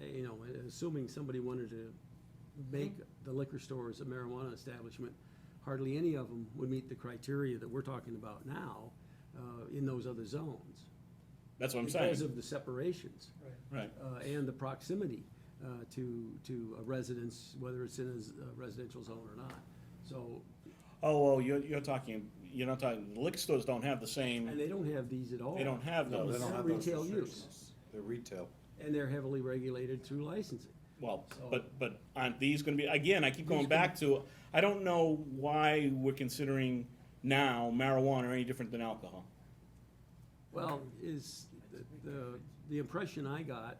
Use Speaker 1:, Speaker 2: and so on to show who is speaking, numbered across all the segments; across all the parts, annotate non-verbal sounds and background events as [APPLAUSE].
Speaker 1: uh, assuming somebody wanted to make the liquor stores a marijuana establishment, hardly any of them would meet the criteria that we're talking about now uh, in those other zones.
Speaker 2: That's what I'm
Speaker 1: Because
Speaker 2: saying,
Speaker 1: of the separations
Speaker 3: Right.
Speaker 2: right,
Speaker 1: uh, and the proximity uh, to, to a residence, whether it's in a s- a residential zone or not. So,
Speaker 2: oh, well, you're, you're talking, you're not talking, liquor stores don't have the
Speaker 1: and
Speaker 2: same,
Speaker 1: they don't have these at all.
Speaker 2: they don't have
Speaker 1: No,
Speaker 2: those,
Speaker 1: they don't have those Retail use. restrictions.
Speaker 4: They're retail.
Speaker 1: And they're heavily regulated through licensing.
Speaker 2: Well,
Speaker 1: So-
Speaker 2: but, but aren't these gonna be, again, I keep going
Speaker 1: These
Speaker 2: back to, I don't know why we're considering now marijuana any different than alcohol.
Speaker 1: Well, Um, is, the- the, the impression I got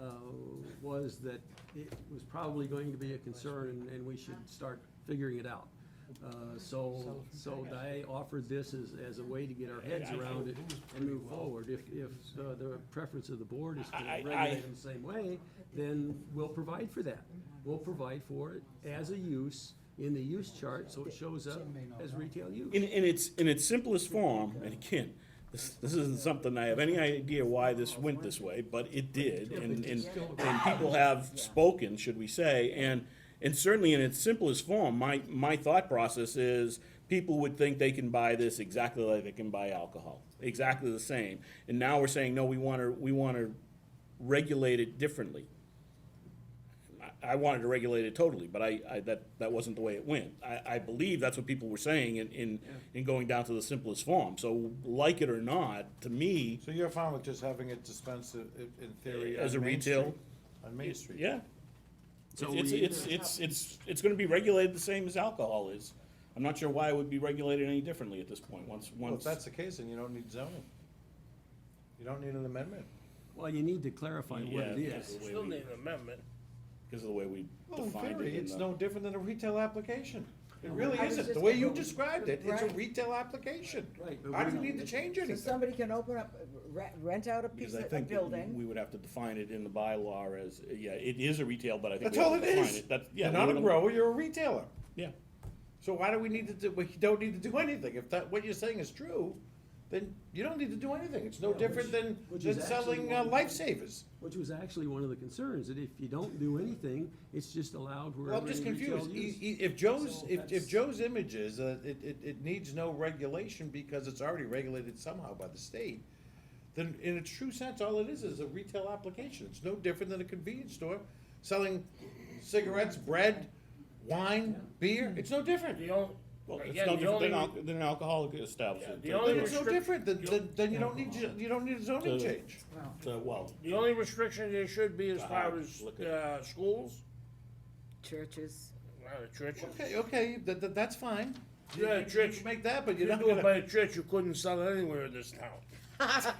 Speaker 1: uh, was that it was probably going to be a concern and- and we should start figuring it out. Uh, So, so I offered this as, as a way to get our heads around it and move forward. If, if uh, the preference of the board is to
Speaker 2: I- I-
Speaker 1: regulate them the same way, then we'll provide for that. We'll provide for it as a use in the use chart, so it shows up as retail use.
Speaker 2: In, in its, in its simplest form, and again, this, this isn't something I have any idea why this went this way, but it did, and, and, and people have spoken, should we say, and, and certainly in its simplest form, my, my thought process is, people would think they can buy this exactly like they can buy alcohol, exactly the same, and now we're saying, no, we wanna, we wanna regulate it differently. I, I wanted to regulate it totally, but I, I, that, that wasn't the way it went. I, I believe that's what people were saying in, in, in going down to the simplest form. So like it or not, to me,
Speaker 4: So you're fine with just having it dispensed uh, in, in theory?
Speaker 2: As
Speaker 4: on
Speaker 2: a
Speaker 4: Main
Speaker 2: retail?
Speaker 4: Street? On Main Street?
Speaker 2: yeah.
Speaker 1: So
Speaker 2: It's,
Speaker 1: we-
Speaker 2: it's, it's, it's, it's gonna be regulated the same as alcohol is. I'm not sure why it would be regulated any differently at this point, once,
Speaker 4: Well, if
Speaker 2: once.
Speaker 4: that's the case, then you don't need zoning. You don't need an amendment.
Speaker 1: Well, you need to clarify what it
Speaker 2: Yeah,
Speaker 1: is.
Speaker 2: because of the way
Speaker 5: Still
Speaker 2: we-
Speaker 5: need an amendment.
Speaker 2: Because of the way we
Speaker 4: Well, in
Speaker 2: defined it.
Speaker 4: theory,
Speaker 2: in
Speaker 4: it's
Speaker 2: the-
Speaker 4: no different than a retail application. It really
Speaker 6: I was
Speaker 4: isn't. The
Speaker 6: just
Speaker 4: way you
Speaker 6: gonna-
Speaker 4: described it, it's a
Speaker 6: Right.
Speaker 4: retail application.
Speaker 1: Right, but
Speaker 4: Why do you
Speaker 1: we-
Speaker 4: need to change
Speaker 6: So
Speaker 4: anything?
Speaker 6: somebody can open up, re- rent out a piece
Speaker 2: Because I
Speaker 6: of a
Speaker 2: think that we- we
Speaker 6: building,
Speaker 2: would have to define it in the bylaw as, yeah, it is a retail, but I think.
Speaker 4: That's
Speaker 2: we have
Speaker 4: all
Speaker 2: to
Speaker 4: it
Speaker 2: define
Speaker 4: is.
Speaker 2: That's, yeah.
Speaker 4: You're
Speaker 2: we
Speaker 4: not a
Speaker 2: would-
Speaker 4: grower, you're a retailer.
Speaker 2: Yeah.
Speaker 4: So why do we need to do, we don't need to do anything? If that, what you're saying is true, then you don't need to do anything. It's no
Speaker 1: Yeah,
Speaker 4: different
Speaker 1: which-
Speaker 4: than,
Speaker 1: which is
Speaker 4: than
Speaker 1: actually
Speaker 4: selling uh,
Speaker 1: one-
Speaker 4: lifesavers.
Speaker 1: Which was actually one of the concerns, that if you don't do anything, it's just allowed
Speaker 4: Well,
Speaker 1: wherever
Speaker 4: I'm just
Speaker 1: in retail
Speaker 4: confused. E-
Speaker 1: use.
Speaker 4: e- If Joe's,
Speaker 1: So
Speaker 4: if,
Speaker 1: that's-
Speaker 4: if Joe's image is, uh, it, it, it needs no regulation because it's already regulated somehow by the state, then in its true sense, all it is is a retail application. It's no different than a convenience store selling cigarettes, bread, wine, beer. It's no different.
Speaker 5: The only,
Speaker 2: Well, it's
Speaker 5: Again,
Speaker 2: no
Speaker 5: the
Speaker 2: different than,
Speaker 5: only-
Speaker 2: al- than an alcoholic establishment.
Speaker 5: Yeah, the only
Speaker 4: Then it's no different,
Speaker 5: restrict-
Speaker 4: then, then, then you don't need, ju- you don't need a zoning
Speaker 2: So-
Speaker 4: change.
Speaker 2: So, uh, well,
Speaker 5: the only restriction there should be as
Speaker 2: Uh,
Speaker 5: far as,
Speaker 2: look at-
Speaker 5: uh, schools,
Speaker 6: churches.
Speaker 5: well, the churches.
Speaker 4: Okay, okay, that, that, that's fine. You-
Speaker 5: Yeah,
Speaker 4: you-
Speaker 5: church-
Speaker 4: you Make that, but
Speaker 5: You
Speaker 4: you're not
Speaker 5: do it by
Speaker 4: gonna.
Speaker 5: a church, you couldn't sell it anywhere in this town.
Speaker 4: [LAUGHS]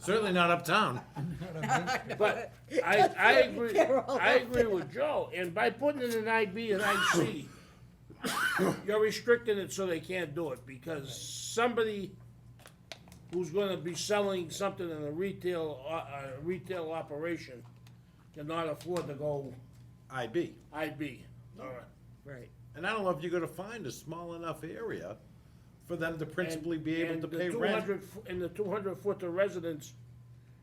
Speaker 4: Certainly not uptown.
Speaker 5: But I,
Speaker 4: [LAUGHS]
Speaker 5: I agree,
Speaker 6: They're all
Speaker 5: I
Speaker 6: up
Speaker 5: agree with Joe, and by putting it in IB and
Speaker 4: [COUGHS]
Speaker 5: IC, you're restricting it so they can't do it, because somebody who's gonna be selling something in a retail, uh, uh, retail operation cannot afford to go
Speaker 4: IB.
Speaker 5: IB, all right.
Speaker 6: Right.
Speaker 4: And I don't know if you're gonna find a small enough area for them to principally
Speaker 5: And-
Speaker 4: be able
Speaker 5: and
Speaker 4: to
Speaker 5: the
Speaker 4: pay rent.
Speaker 5: 200 fo- And the two hundred foot to residents,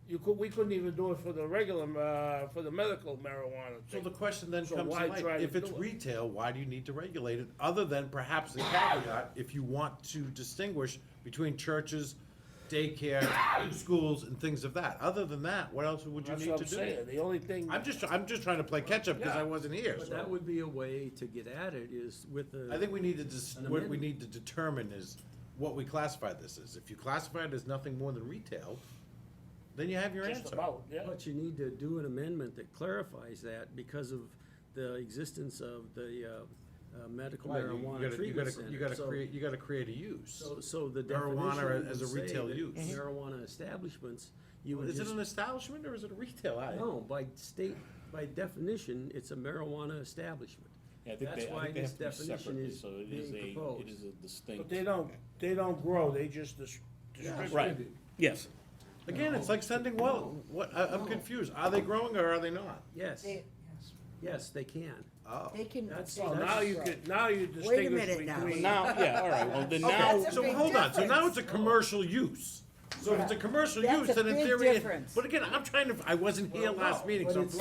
Speaker 5: you could, we couldn't even do it for the regular, uh, for the medical marijuana
Speaker 4: So the
Speaker 5: thing.
Speaker 4: question then
Speaker 5: So
Speaker 4: comes
Speaker 5: why
Speaker 4: to light,
Speaker 5: try to
Speaker 4: if it's
Speaker 5: do it?
Speaker 4: retail, why do you need to regulate it, other than perhaps the caveat, if you want to distinguish between churches,
Speaker 5: [COUGHS]
Speaker 4: daycare, schools, and things of that, other than that, what else would you
Speaker 5: That's
Speaker 4: need
Speaker 5: what
Speaker 4: to
Speaker 5: I'm
Speaker 4: do?
Speaker 5: saying, the only thing.
Speaker 4: I'm just, I'm just trying to play catch-up, because I
Speaker 5: Yeah.
Speaker 4: wasn't here,
Speaker 1: But
Speaker 4: so.
Speaker 1: that would be a way to get at it is with the.
Speaker 4: I think we need to, dis-
Speaker 1: An
Speaker 4: what we
Speaker 1: amendment.
Speaker 4: need to determine is what we classify this as. If you classify it as nothing more than retail, then you have your
Speaker 5: Just
Speaker 4: answer.
Speaker 5: about, yeah.
Speaker 1: But you need to do an amendment that clarifies that because of the existence of the uh, uh, medical
Speaker 4: Why? You- you gotta-
Speaker 1: marijuana
Speaker 4: you
Speaker 1: treatment
Speaker 4: gotta-
Speaker 1: center.
Speaker 4: You gotta
Speaker 1: So-
Speaker 4: create, you gotta create a use.
Speaker 1: So, so the
Speaker 4: marijuana
Speaker 1: definition
Speaker 4: as a
Speaker 1: would say
Speaker 4: retail
Speaker 1: that
Speaker 4: use. Mhm.
Speaker 1: Marijuana establishments, you would
Speaker 4: Is it
Speaker 1: just.
Speaker 4: an establishment or is it a retail? I-
Speaker 1: No, by state, by definition, it's a marijuana establishment.
Speaker 2: I think
Speaker 1: That's
Speaker 2: they, I
Speaker 1: why
Speaker 2: think they
Speaker 1: this
Speaker 2: have to be
Speaker 1: definition
Speaker 2: separate,
Speaker 1: is
Speaker 2: so it is
Speaker 1: being
Speaker 2: a, it
Speaker 1: proposed.
Speaker 2: is a
Speaker 5: But
Speaker 2: distinct.
Speaker 5: they don't, they don't grow, they just dis- distribute.
Speaker 2: Right, yes.
Speaker 4: Again, it's like sending well, what, I, I'm confused. Are they growing or are they not?
Speaker 1: Yes,
Speaker 6: They,
Speaker 1: yes, they can.
Speaker 4: Oh.
Speaker 6: they can.
Speaker 1: That's-
Speaker 6: they
Speaker 5: Well,
Speaker 6: can
Speaker 5: now you
Speaker 6: grow.
Speaker 5: could, now you distinguish
Speaker 6: minute now.
Speaker 2: Well,
Speaker 5: between.
Speaker 2: Now, yeah, all right, well, then now,
Speaker 6: That's a
Speaker 4: So
Speaker 6: big
Speaker 4: hold on, so now it's
Speaker 6: difference.
Speaker 4: a commercial use. So if it's a commercial
Speaker 6: That's
Speaker 4: use,
Speaker 6: a
Speaker 4: then in
Speaker 6: big
Speaker 4: theory, it-
Speaker 6: difference.
Speaker 4: but again, I'm trying to, I wasn't here
Speaker 1: Well,
Speaker 4: last
Speaker 1: no,
Speaker 4: meeting,
Speaker 1: but
Speaker 4: so I'm
Speaker 1: it's-